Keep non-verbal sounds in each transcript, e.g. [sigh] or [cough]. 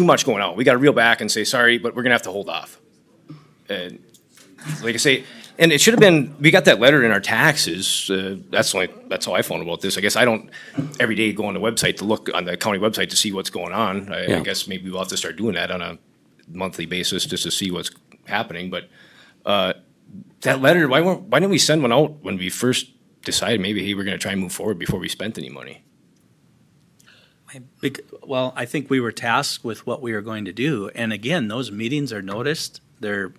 too much going on. We got to reel back and say, sorry, but we're going to have to hold off. And like I say, and it should have been, we got that letter in our taxes. Uh, that's the only, that's how I found about this. I guess I don't every day go on the website to look on the county website to see what's going on. I, I Yeah. guess maybe we'll have to start doing that on a monthly basis just to see what's happening. But uh, that letter, why weren't, why didn't we send one out when we first decided maybe hey, we're going to try and move forward before we spent any money? Bec- Well, I think we were tasked with what we were going to do. And again, those meetings are noticed. They're,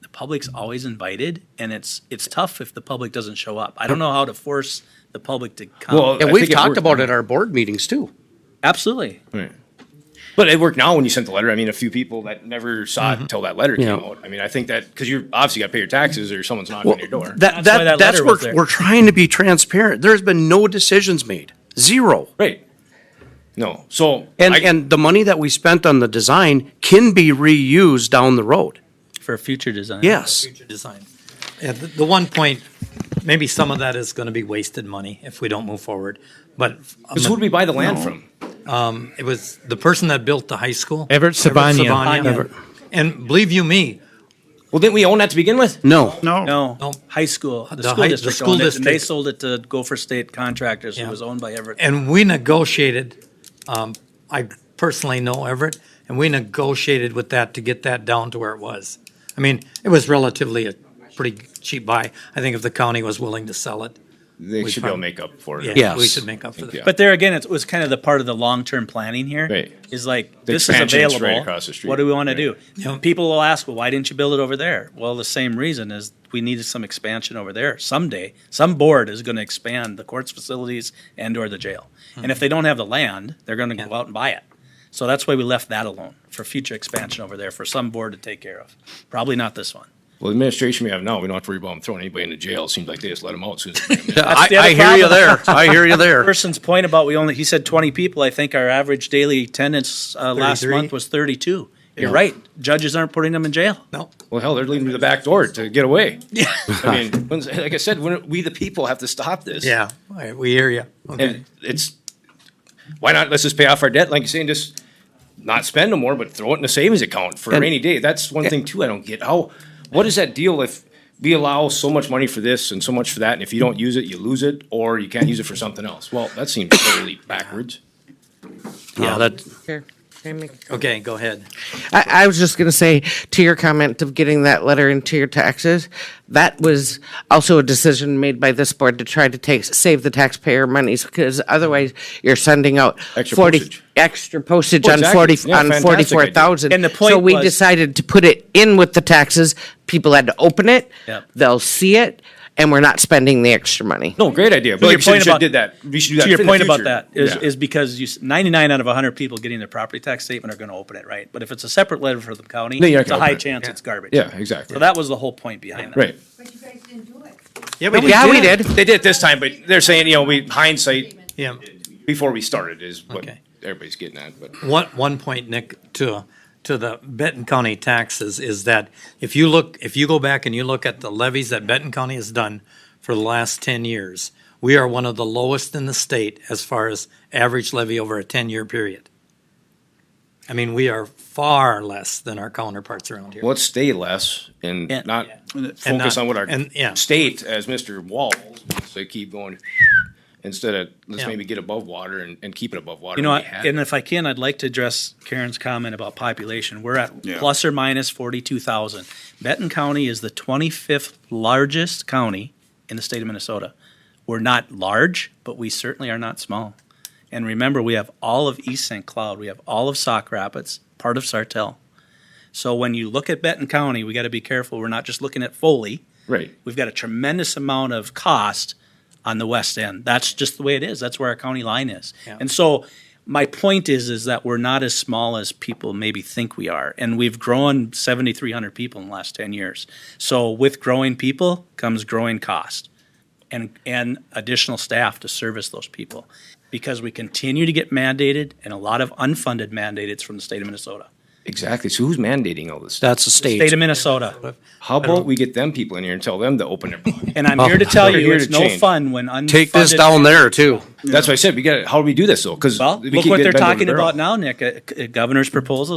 the public's always invited and it's, it's tough if the public doesn't show up. I don't know how to force the public to come. Well, And I we've think it talked worked. about it at our board meetings too. Absolutely. Right. But it worked now when you sent the letter. I mean, a few people that never saw it until that letter Yeah. came out. I mean, I think that because you're obviously got to pay your taxes or someone's knocking on your door. That, That's why that, that that's letter where was there. we're trying to be transparent. There's been no decisions made, zero. right. No. So And, I- and the money that we spent on the design can be reused down the road. For future design. Yes. future design. Yeah, the, the one point, maybe some of that is gonna be wasted money if we don't move forward, but. 'cause who would we buy the land No. from? It was the person that built the high school. Everett Sabanian. Everett. And believe you me, Well, didn't we own that to begin with? No. No. No, No. high school, the Oh. The school high- the district school owned it and they district. sold it to Gopher State Contractors, who Yeah. was owned by Everett. and we negotiated, um, I personally know Everett, and we negotiated with that to get that down to where it was. I mean, it was relatively a pretty cheap buy. I think if the county was willing to sell it, They We should be able to found- make up for it. yeah, Yes. we should make up for that. Yeah. But there again, it was kind of the part of the long-term planning here. Is Right. like, The this is expansion's available. right across the street. What do we want to Right. do? People will ask, well, why didn't you build it over there? Well, the same reason is we needed some expansion over there. Someday, some board is going to expand the courts facilities and or the jail. And if they don't have the land, they're going to go out and buy it. So that's why we left that alone for future expansion over there for some board to take care of. Probably not this one. Well, the administration we have now, we don't have to worry about them throwing anybody into jail. It seems like they just let them out as soon as they bring 'em in. [laughs] I, the other I hear you problem. there. I hear you [laughs] there. person's point about we only he said 20 people i think our average daily attendance uh, last 33. month was 32 you're right judges aren't putting them in jail No, Well, hell, they're leaving through the back door to get away. Yeah. I mean, when's- like I said, when we the people have to stop this. yeah, all right, we hear you. Okay. And it's, why not, let's just pay off our debt, like you say, and just not spend no more, but throw it in a savings account for a And- rainy day. That's one thing too, I don't get. How, what is that deal if we allow so much money for this and so much for that, and if you don't use it, you lose it, or you can't use it for something else? Well, that seems totally [coughs] backwards. Yeah, that, Here, can I make- Okay, go ahead. I, I was just gonna say to your comment of getting that letter into your taxes, that was also a decision made by this board to try to take, save the taxpayer monies, because otherwise you're sending out Extra forty, postage. extra postage Oh, on exactly. forty, Yeah, on fantastic forty-four thousand. And the point So we was- decided to put it in with the taxes, people had to open it, Yep. they'll see it, and we're not spending the extra money. No, great idea, but your like you said, point you should have about- did that. We should do that to your in the point about future. that is, Yeah. is because you, s- 99 out of 100 people getting their property tax statement are going to open it right but if it's a separate letter for the county Then you're not it's a gonna high open it. chance it's garbage Yeah, exactly. so that was the whole point behind that Right. But you guys didn't do it. Yeah, we Yeah, we did. They did it this time, but they're saying, you know, we hindsight Yeah. before we started is what Okay. everybody's getting at, but. One, one point, Nick, to, to the Benton County taxes is that if you look, if you go back and you look at the levies that Benton County has done for the last ten years, we are one of the lowest in the state as far as average levy over a ten-year period. I mean, we are far less than our counterparts around here. Well, Let's stay less and Yeah. not And focus not- on what and- yeah. our state, as Mr. Wall, so keep going, instead of, let's Yeah. maybe get above water and, and keep it above water. You know, when I- we have and it. if I can, I'd like to address Karen's comment about population. We're at plus or minus forty-two thousand. Benton County is the twenty-fifth largest county in the state of Minnesota. We're not large, but we certainly are not small. And remember, we have all of East St. Cloud, we have all of Sauk Rapids, part of Sartell. So when you look at Benton County, we got to be careful. We're not just looking at Foley Right. we've got a tremendous amount of cost on the west end. That's just the way it is. That's where our county line is. And so my point is is that we're not as small as people maybe think we are. And we've grown 7300 people in the last 10 years. So with growing people comes growing cost and and additional staff to service those people because we continue to get mandated and a lot of unfunded mandated from the state of Minnesota. Exactly. So who's mandating all this stuff? that's the State state. of Minnesota. How about we get them people in here and tell them to open [laughs] their mouth? And I'm here to tell We're you here it's to no change. fun when unfunded Take this down there too. That's what I said. We got, how do we do this though? Cause. Well, we look keep what getting they're bent over talking the barrel. about now, Nick. Uh, c- uh, Governor's proposals